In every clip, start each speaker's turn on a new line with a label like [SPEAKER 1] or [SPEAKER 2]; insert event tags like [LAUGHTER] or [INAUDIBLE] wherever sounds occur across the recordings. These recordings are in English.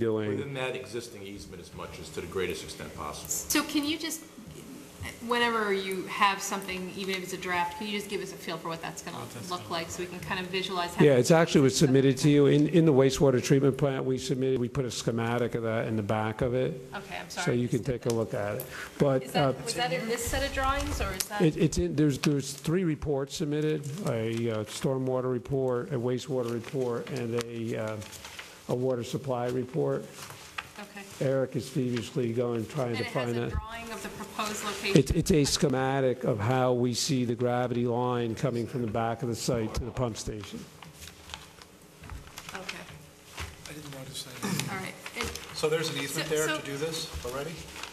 [SPEAKER 1] dealing,
[SPEAKER 2] Within that existing easement as much as to the greatest extent possible.
[SPEAKER 3] So can you just, whenever you have something, even if it's a draft, can you just give us a feel for what that's going to look like, so we can kind of visualize? how-
[SPEAKER 1] yeah, it's actually was submitted to you, in, in the wastewater treatment plant, we submitted, we put a schematic of that in the back of it,
[SPEAKER 3] Okay, I'm sorry.
[SPEAKER 1] so you can take a look at it. But
[SPEAKER 3] Is
[SPEAKER 1] uh,
[SPEAKER 3] that, was that in this set of drawings, or is that?
[SPEAKER 1] it- it's, in- there's, there's three reports submitted, a uh, stormwater report, a wastewater report, and a, uh, a water supply report.
[SPEAKER 3] Okay.
[SPEAKER 1] Eric is feverishly going, trying
[SPEAKER 3] And
[SPEAKER 1] to
[SPEAKER 3] it has
[SPEAKER 1] find
[SPEAKER 3] a
[SPEAKER 1] that.
[SPEAKER 3] drawing of the proposed
[SPEAKER 1] It's,
[SPEAKER 3] location?
[SPEAKER 1] it's a schematic of how we see the gravity line coming from the back of the site to the pump station.
[SPEAKER 3] Okay,
[SPEAKER 4] I didn't want
[SPEAKER 3] [LAUGHS]
[SPEAKER 4] to say that.
[SPEAKER 3] all right. And-
[SPEAKER 4] So there's an easement
[SPEAKER 3] So-
[SPEAKER 4] there
[SPEAKER 3] so-
[SPEAKER 4] to do this already?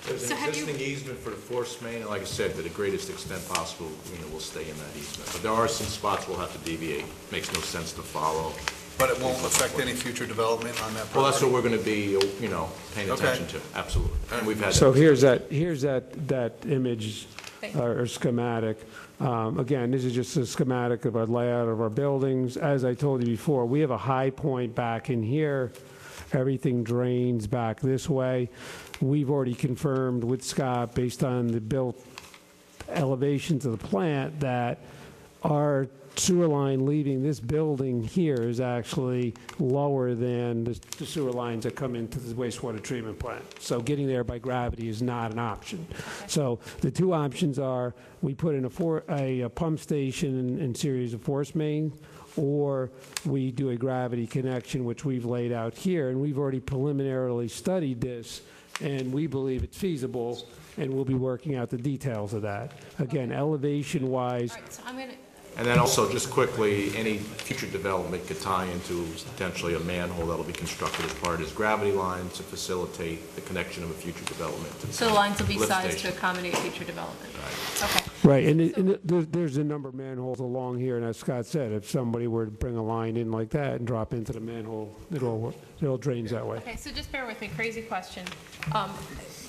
[SPEAKER 2] There's
[SPEAKER 3] So
[SPEAKER 2] an
[SPEAKER 3] have you-
[SPEAKER 2] existing easement for the force main, and like I said, to the greatest extent possible, you know, we'll stay in that easement. But there are some spots we'll have to deviate. Makes no sense to follow.
[SPEAKER 4] But it won't affect any future development on that property?
[SPEAKER 2] Well, that's what we're going to be, you know, paying
[SPEAKER 4] Okay.
[SPEAKER 2] attention to, absolutely. And we've had that.
[SPEAKER 1] So here's that, here's that, that image uh,
[SPEAKER 3] Thank you.
[SPEAKER 1] or or schematic. Um, Again, this is just a schematic of our layout of our buildings. As I told you before, we have a high point back in here. Everything drains back this way. We've already confirmed with Scott, based on the built elevations of the plant, that our sewer line leaving this building here is actually lower than the the sewer lines that come into the wastewater treatment plant. So getting there by gravity is not an option. So the two options are, we put in a for, a uh, pump station and- and series of force main, or we do a gravity connection, which we've laid out here, and we've already preliminarily studied this, and we believe it's feasible, and we'll be working out the details of that. Again, elevation-wise,
[SPEAKER 3] All right, so I'm going to,
[SPEAKER 2] And then also, just quickly, any future development could tie into potentially a manhole that'll be constructed as part of his gravity line to facilitate the connection of a future development. to the
[SPEAKER 3] so the lines will be
[SPEAKER 2] lift
[SPEAKER 3] sized to
[SPEAKER 2] station.
[SPEAKER 3] accommodate future development? Okay.
[SPEAKER 1] Right, and, it- and it- there- there's a number of manholes along here, and as Scott said, if somebody were to bring a line in like that and drop into the manhole, it all, it all drains that way.
[SPEAKER 3] Okay, so just bear with me, crazy question. Um,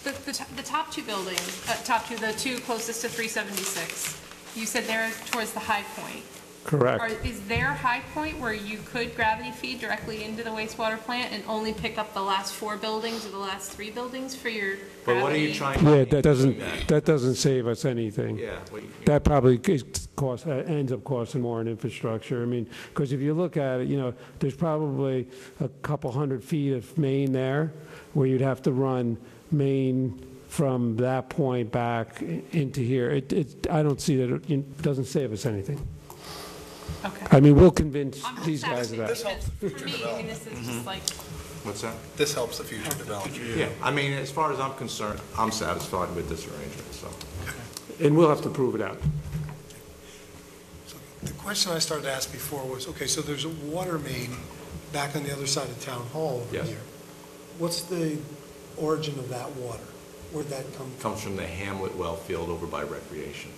[SPEAKER 3] The, the to- the top two buildings, uh, top two, the two closest to 376, you said they're towards the high point. Are-
[SPEAKER 1] Correct.
[SPEAKER 3] Is there a high point where you could gravity feed directly into the wastewater plant and only pick up the last four buildings or the last three buildings for your gravity?
[SPEAKER 2] But what are you trying?
[SPEAKER 1] Yeah, that doesn't, that doesn't save us anything.
[SPEAKER 2] Yeah, what you-
[SPEAKER 1] That probably c- costs, uh, ends up costing more in infrastructure. I mean, because if you look at it, you know, there's probably a couple hundred feet of main there, where you'd have to run main from that point back i- into here. It, it, I don't see that, it- it doesn't save us anything.
[SPEAKER 3] Okay.
[SPEAKER 1] I mean, we'll convince
[SPEAKER 3] I'm just
[SPEAKER 1] these guys of
[SPEAKER 3] asking
[SPEAKER 1] that.
[SPEAKER 4] This helps
[SPEAKER 3] because For me, I mean, this is just like,
[SPEAKER 2] Mhm. what's that?
[SPEAKER 4] This helps the future development.
[SPEAKER 2] Yeah, I mean, as far as I'm concerned, I'm satisfied with this arrangement, so.
[SPEAKER 1] And we'll have to prove it out.
[SPEAKER 5] So The question I started to ask before was, okay, so there's a water main back on the other side of Town Hall here.
[SPEAKER 2] Yes.
[SPEAKER 5] What's the origin of that water? Where'd that come from?
[SPEAKER 2] Comes from the Hamlet well field over by Recreation.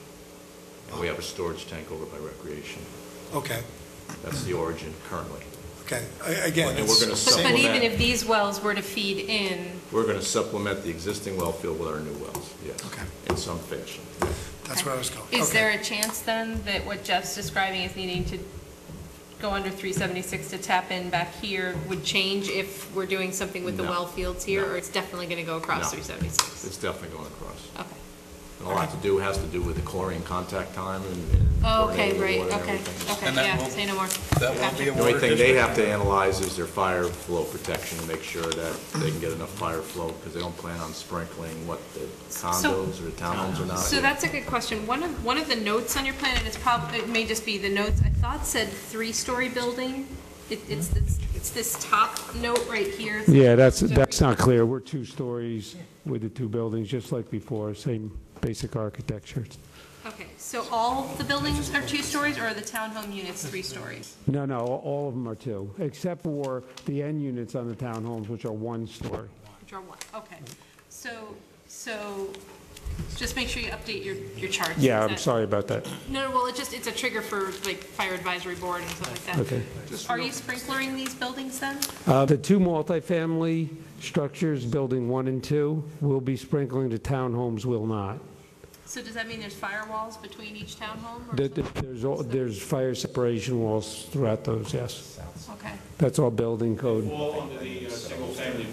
[SPEAKER 2] And we have a storage tank over by Recreation.
[SPEAKER 5] Okay,
[SPEAKER 2] That's the origin currently.
[SPEAKER 5] okay, A- again,
[SPEAKER 2] And we're
[SPEAKER 5] it's
[SPEAKER 2] gonna
[SPEAKER 5] the
[SPEAKER 3] but
[SPEAKER 2] Same
[SPEAKER 3] but
[SPEAKER 5] same,
[SPEAKER 2] with
[SPEAKER 3] even
[SPEAKER 2] that.
[SPEAKER 3] if these wells were to feed in,
[SPEAKER 2] We're going to supplement the existing well field with our new wells, yes.
[SPEAKER 5] Okay.
[SPEAKER 2] In some fashion.
[SPEAKER 5] that's where I was going.
[SPEAKER 3] is
[SPEAKER 5] Okay.
[SPEAKER 3] there a chance then that what Jeff's describing is needing to go under 376 to tap in back here would change if we're doing something with the
[SPEAKER 2] No.
[SPEAKER 3] well fields here?
[SPEAKER 2] No.
[SPEAKER 3] Or it's definitely going to go across
[SPEAKER 2] No.
[SPEAKER 3] 376?
[SPEAKER 2] It's definitely going across.
[SPEAKER 3] Okay. Oh,
[SPEAKER 2] And a lot to do, has to do with the chlorine contact time and- and.
[SPEAKER 3] Okay,
[SPEAKER 2] coordinating the
[SPEAKER 3] great,
[SPEAKER 2] water and
[SPEAKER 3] okay,
[SPEAKER 2] everything.
[SPEAKER 3] okay,
[SPEAKER 4] And that
[SPEAKER 3] yeah,
[SPEAKER 4] won't-
[SPEAKER 3] say no more.
[SPEAKER 4] That won't be
[SPEAKER 3] Gotcha.
[SPEAKER 4] a
[SPEAKER 2] The only
[SPEAKER 4] water
[SPEAKER 2] thing they
[SPEAKER 4] district.
[SPEAKER 2] have to analyze is their fire flow protection to make sure that they can get enough fire flow because they don't plan on sprinkling, what, the condos or the townhomes or not.
[SPEAKER 3] So that's a good question. One of, one of the notes on your plan, and it's probably, it may just be the notes, I thought said three-story building. It, it's, this- it's this top note right here.
[SPEAKER 1] Yeah, that's, that's not clear. We're two stories with the two buildings, just like before, same basic architecture.
[SPEAKER 3] Okay, so all the buildings are two stories, or are the townhome units three stories?
[SPEAKER 1] No, no, all of them are two, except for the end units on the townhomes, which are one story.
[SPEAKER 3] Which are one, okay. So, so, just make sure you update your, your charts.
[SPEAKER 1] Yeah, I'm
[SPEAKER 3] Is that-
[SPEAKER 1] sorry about that.
[SPEAKER 3] No, no, well, it just, it's a trigger for like fire advisory board and stuff like that.
[SPEAKER 1] Okay.
[SPEAKER 3] Are you sprinklering these buildings then?
[SPEAKER 1] Uh, The two multifamily structures, building one and two, will be sprinkling, the townhomes will not.
[SPEAKER 3] So does that mean there's firewalls between each townhome or
[SPEAKER 1] There-
[SPEAKER 3] something?
[SPEAKER 1] There's, all- there's fire separation walls throughout those, yes.
[SPEAKER 3] Okay.
[SPEAKER 1] That's all building code.
[SPEAKER 6] fall under the uh, single-family